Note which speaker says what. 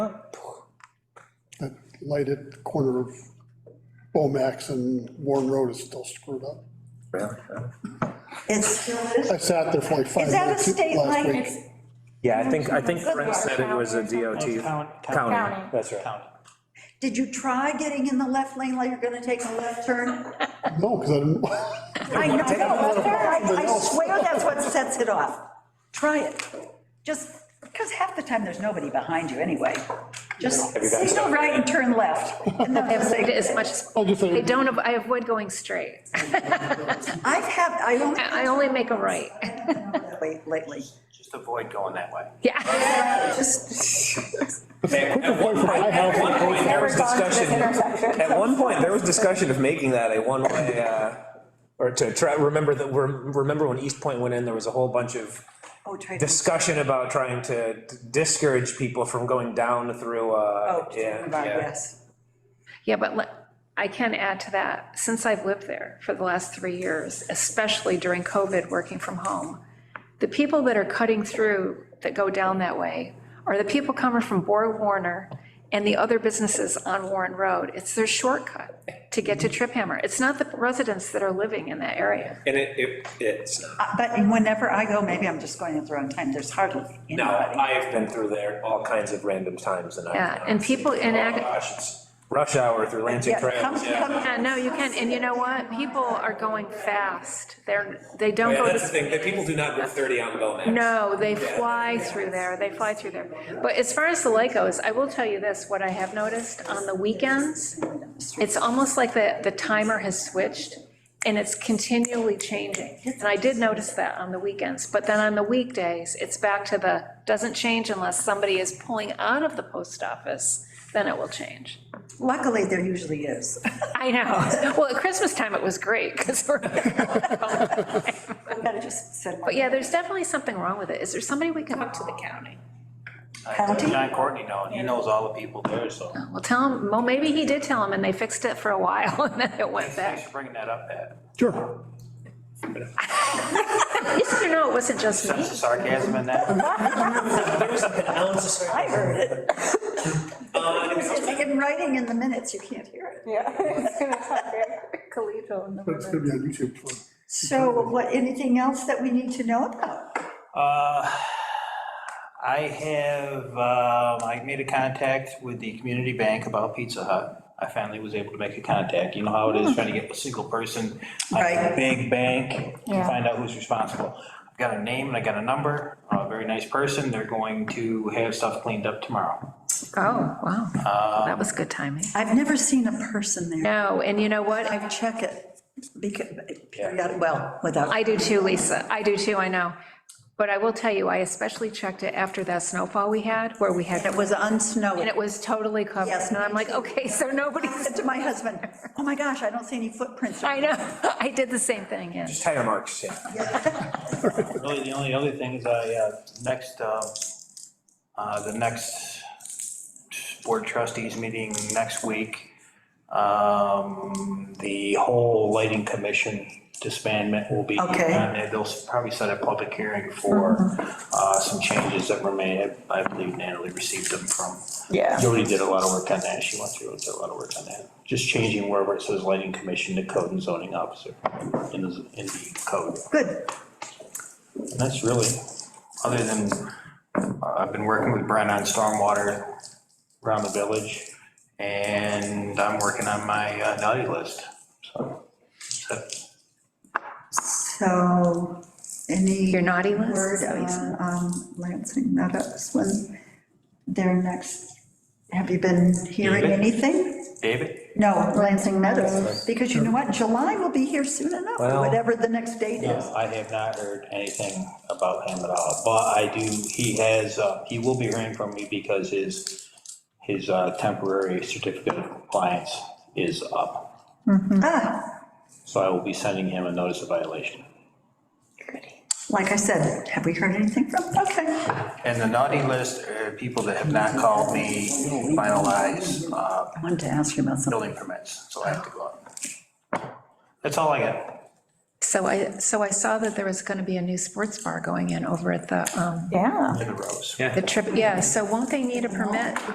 Speaker 1: that lighted corner of Bomax and Warren Road is still screwed up.
Speaker 2: Really?
Speaker 3: It's,
Speaker 1: I sat there for like five
Speaker 3: is that a
Speaker 1: minutes
Speaker 3: state
Speaker 1: last
Speaker 3: line?
Speaker 1: week.
Speaker 2: Yeah, I think, I think Brent
Speaker 4: Brent
Speaker 2: said it was a DOT.
Speaker 4: County.
Speaker 2: County,
Speaker 4: County.
Speaker 2: that's right.
Speaker 4: County.
Speaker 3: Did you try getting in the left lane like you're gonna take a left turn?
Speaker 1: No, because I didn't,
Speaker 3: I know, I I swear that's what sets it off. Try it. Just, because half the time there's nobody behind you anyway. Just signal right and turn left. And then
Speaker 5: I
Speaker 3: they'll
Speaker 5: avoid it
Speaker 3: say-
Speaker 5: as much,
Speaker 1: I'll just
Speaker 5: I
Speaker 1: say,
Speaker 5: don't, av- I avoid going straight.
Speaker 3: I've had, I only.
Speaker 5: I I only make a right.
Speaker 3: Late- Lately.
Speaker 6: Just avoid going that way.
Speaker 5: Yeah.
Speaker 2: At one point, at one point, there was discussion, at one point, there was discussion of making that a one-way, uh, or to try, remember that, rem- remember when East Point went in, there was a whole bunch of
Speaker 3: Oh, try to.
Speaker 2: discussion about trying to discourage people from going down through, uh,
Speaker 3: Oh,
Speaker 2: yeah, yeah.
Speaker 3: yes.
Speaker 5: Yeah, but le- I can add to that, since I've lived there for the last three years, especially during COVID, working from home, the people that are cutting through, that go down that way, are the people coming from Bor Warner and the other businesses on Warren Road. It's their shortcut to get to Trip Hammer. It's not the residents that are living in that area.
Speaker 2: And it, it, it's,
Speaker 3: Uh, But whenever I go, maybe I'm just going at the wrong time, there's hardly
Speaker 2: no,
Speaker 3: anybody.
Speaker 2: I have been through there all kinds of random times and I.
Speaker 5: Yeah, and people- and
Speaker 2: Oh,
Speaker 5: ac-
Speaker 2: gosh, it's Rush hour through Lansing
Speaker 3: Yeah, come-
Speaker 2: Trails, yeah.
Speaker 3: come-
Speaker 5: Yeah, no, you can, and you know what? People are going fast. They're, they don't
Speaker 2: Yeah,
Speaker 5: go
Speaker 2: that's the
Speaker 5: to,
Speaker 2: thing, that people do not go 30 on Bomax.
Speaker 5: no, they fly through there, they fly through there. But as far as the light goes, I will tell you this, what I have noticed on the weekends, it's almost like the, the timer has switched and it's continually changing. And I did notice that on the weekends, but then on the weekdays, it's back to the, doesn't change unless somebody is pulling out of the post office, then it will change.
Speaker 3: Luckily, there usually is.
Speaker 5: I know. Well, at Christmas time, it was great, because we're.
Speaker 3: I gotta just send my
Speaker 5: But yeah, there's definitely something wrong with it. Is there somebody we can talk to the county?
Speaker 3: County?
Speaker 6: John Courtney knows, he knows all the people there, so.
Speaker 5: Well, tell him, well, maybe he did tell him, and they fixed it for a while, and then it went
Speaker 6: Thanks
Speaker 5: back.
Speaker 6: for bringing that up, Pat.
Speaker 1: sure,
Speaker 5: Yes or no, it wasn't just me?
Speaker 6: Sense of sarcasm in that.
Speaker 3: I heard
Speaker 5: Um,
Speaker 3: it. It's in writing in the minutes, you can't hear it.
Speaker 5: Oh,
Speaker 1: but it's gonna be on YouTube for,
Speaker 3: So what, anything else that we need to know about?
Speaker 6: Uh, I have, um, I made a contact with the community bank about Pizza Hut. I finally was able to make a contact. You know how it is trying to get a single person, like
Speaker 3: Right.
Speaker 6: a big bank, to find out who's responsible. I've got a name and I got a number, a very nice person. They're going to have stuff cleaned up tomorrow.
Speaker 5: Oh, wow. That was good timing.
Speaker 3: I've never seen a person there.
Speaker 5: No, and you know what?
Speaker 3: I check it, because, period- well, without,
Speaker 5: I do too, Lisa. I do too, I know. But I will tell you, I especially checked it after that snowfall we had, where we had,
Speaker 3: it
Speaker 5: and
Speaker 3: was
Speaker 5: it
Speaker 3: unsnowing.
Speaker 5: was totally covered.
Speaker 3: Yes,
Speaker 5: And I'm
Speaker 3: me
Speaker 5: like,
Speaker 3: too.
Speaker 5: okay, so
Speaker 3: I
Speaker 5: nobody's,
Speaker 3: said to my husband, oh my gosh, I don't see any footprints.
Speaker 5: I know. I did the same thing, yeah.
Speaker 2: Just tire marks, yeah.
Speaker 6: Really, the only other thing is I, uh, next, uh, uh, the next board trustees meeting next week, um, the whole lighting commission disbandment will be.
Speaker 3: Okay. Mm-hmm.
Speaker 6: and they- They'll probably set a public hearing for uh, some changes that were made. I I believe Natalie received them from.
Speaker 3: Yeah.
Speaker 6: Jody did a lot of work on that. She went through and did a lot of work on that. Just changing wherever it says lighting commission to code and zoning officer in the, in the code.
Speaker 3: Good,
Speaker 6: And That's really, other than, uh, I've been working with Brent on stormwater around the village, and I'm working on my uh, naughty list, so. so,
Speaker 3: so, any.
Speaker 5: Your naughty list?
Speaker 3: Word on um, Lansing Meadows, when their next, have you been hearing
Speaker 6: David?
Speaker 3: anything?
Speaker 6: David?
Speaker 3: No, Lansing Meadows, because you know what, July will be here soon enough,
Speaker 2: Well-
Speaker 3: whatever the next date
Speaker 6: No,
Speaker 3: is.
Speaker 6: I have not heard anything about him at all, but I do, he has, uh, he will be hearing from me because his, his uh, temporary certificate of compliance is up.
Speaker 3: Ah,
Speaker 6: So I will be sending him a notice of violation.
Speaker 3: Like I said, have we heard anything from, okay.
Speaker 6: And the naughty list are people that have not called me finalize uh,
Speaker 3: I wanted to ask you about something.
Speaker 6: building permits, so I have to go out. That's all I got.
Speaker 5: So I, so I saw that there was going to be a new sports bar going in over at the, um,
Speaker 3: Yeah.
Speaker 6: In the rows.
Speaker 5: the trip, yeah, so won't they need a permit?